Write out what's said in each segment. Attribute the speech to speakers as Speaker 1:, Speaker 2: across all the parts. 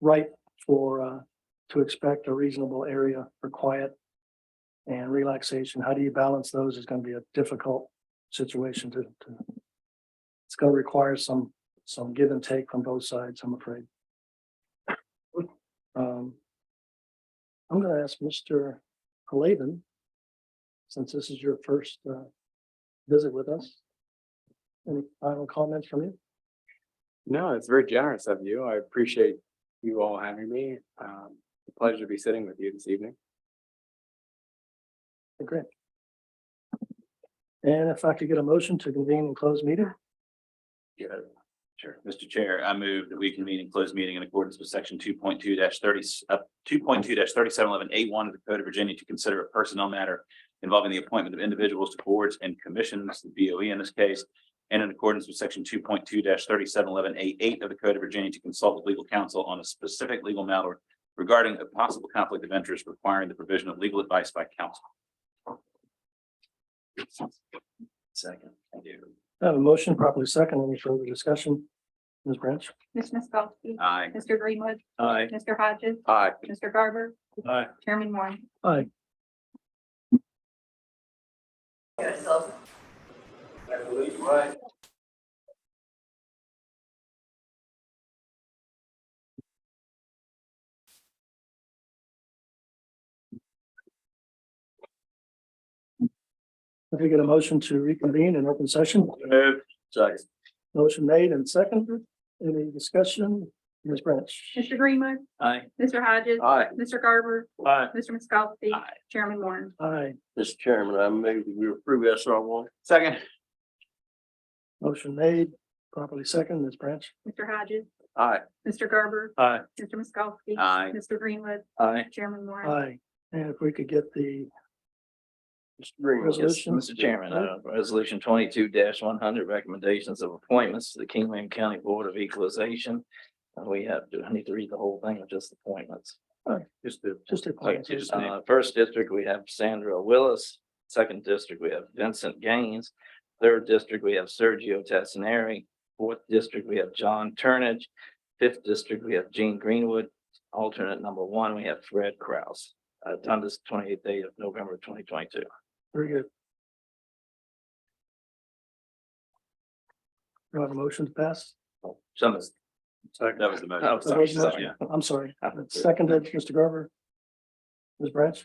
Speaker 1: right for, uh, to expect a reasonable area for quiet and relaxation. How do you balance those is gonna be a difficult situation to, to. It's gonna require some, some give and take from both sides, I'm afraid. Um. I'm gonna ask Mr. Halavin, since this is your first, uh, visit with us. Any final comments from you?
Speaker 2: No, it's very generous of you. I appreciate you all having me. Um, it's a pleasure to be sitting with you this evening.
Speaker 1: Great. And if I could get a motion to convene and close meeting,
Speaker 3: Yeah, sure. Mr. Chair, I move that we convene and close meeting in accordance with section two point two thirty, uh, two point two thirty-seven eleven A one of the Code of Virginia to consider a personnel matter involving the appointment of individuals to boards and commissions, the BOE in this case, and in accordance with section two point two thirty-seven eleven A eight of the Code of Virginia to consult with legal counsel on a specific legal matter regarding a possible conflict of interest requiring the provision of legal advice by counsel. Second. Thank you.
Speaker 1: I have a motion properly second. Any further discussion? Ms. Branch?
Speaker 4: Ms. Miskowski.
Speaker 3: Aye.
Speaker 4: Mr. Greenwood.
Speaker 2: Aye.
Speaker 4: Mr. Hodges.
Speaker 2: Aye.
Speaker 4: Mr. Garber.
Speaker 2: Aye.
Speaker 4: Chairman Warren.
Speaker 1: Aye. If you get a motion to reconvene in open session,
Speaker 3: Move. Second.
Speaker 1: motion made and seconded. Any discussion? Ms. Branch?
Speaker 4: Mr. Greenwood.
Speaker 3: Aye.
Speaker 4: Mr. Hodges.
Speaker 2: Aye.
Speaker 4: Mr. Garber.
Speaker 2: Aye.
Speaker 4: Mr. Miskowski.
Speaker 3: Aye.
Speaker 4: Chairman Warren.
Speaker 1: Aye.
Speaker 5: Mr. Chairman, I move that we approve SR one.
Speaker 2: Second.
Speaker 1: Motion made, properly second. Ms. Branch?
Speaker 4: Mr. Hodges.
Speaker 2: Aye.
Speaker 4: Mr. Garber.
Speaker 2: Aye.
Speaker 4: Mr. Miskowski.
Speaker 3: Aye.
Speaker 4: Mr. Greenwood.
Speaker 2: Aye.
Speaker 4: Chairman Warren.
Speaker 1: Aye. And if we could get the
Speaker 5: Mr. Greenwood.
Speaker 1: Resolution.
Speaker 6: Yes, Mr. Chairman, uh, resolution twenty-two one hundred, recommendations of appointments to the Kingman County Board of Equalization. Uh, We have, do I need to read the whole thing or just appointments?
Speaker 3: Just the
Speaker 1: Just a
Speaker 6: Okay,
Speaker 1: point.
Speaker 3: just name.
Speaker 6: Uh, first district, we have Sandra Willis. Second district, we have Vincent Gaines. Third district, we have Sergio Tassinari. Fourth district, we have John Turnage. Fifth district, we have Gene Greenwood. Alternate number one, we have Fred Kraus. Uh, done this twenty-eighth day of November twenty twenty-two.
Speaker 1: Very good. Do I have a motion to pass?
Speaker 6: Some is.
Speaker 3: That was the motion.
Speaker 6: Oh,
Speaker 1: That
Speaker 6: sorry,
Speaker 1: was a
Speaker 6: sorry.
Speaker 1: motion. I'm sorry.
Speaker 6: I would say-
Speaker 1: Seconded, Mr. Garber. Ms. Branch?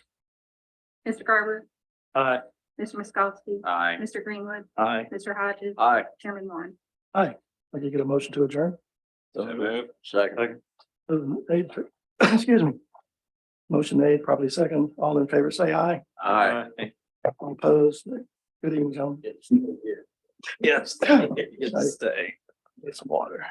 Speaker 4: Mr. Garber.
Speaker 2: Aye.
Speaker 4: Mr. Miskowski.
Speaker 3: Aye.
Speaker 4: Mr. Greenwood.
Speaker 6: Aye.
Speaker 4: Mr. Hodges.
Speaker 2: Aye.
Speaker 4: Chairman Warren.
Speaker 1: I could get a motion to adjourn?
Speaker 3: So moved.
Speaker 5: Second.
Speaker 1: Uh, made- Excuse me. Motion made, probably second. All in favor, say aye.
Speaker 2: Aye.
Speaker 1: All Opposed. Good evening, gentlemen.
Speaker 6: Yes, you can stay.
Speaker 1: It's water.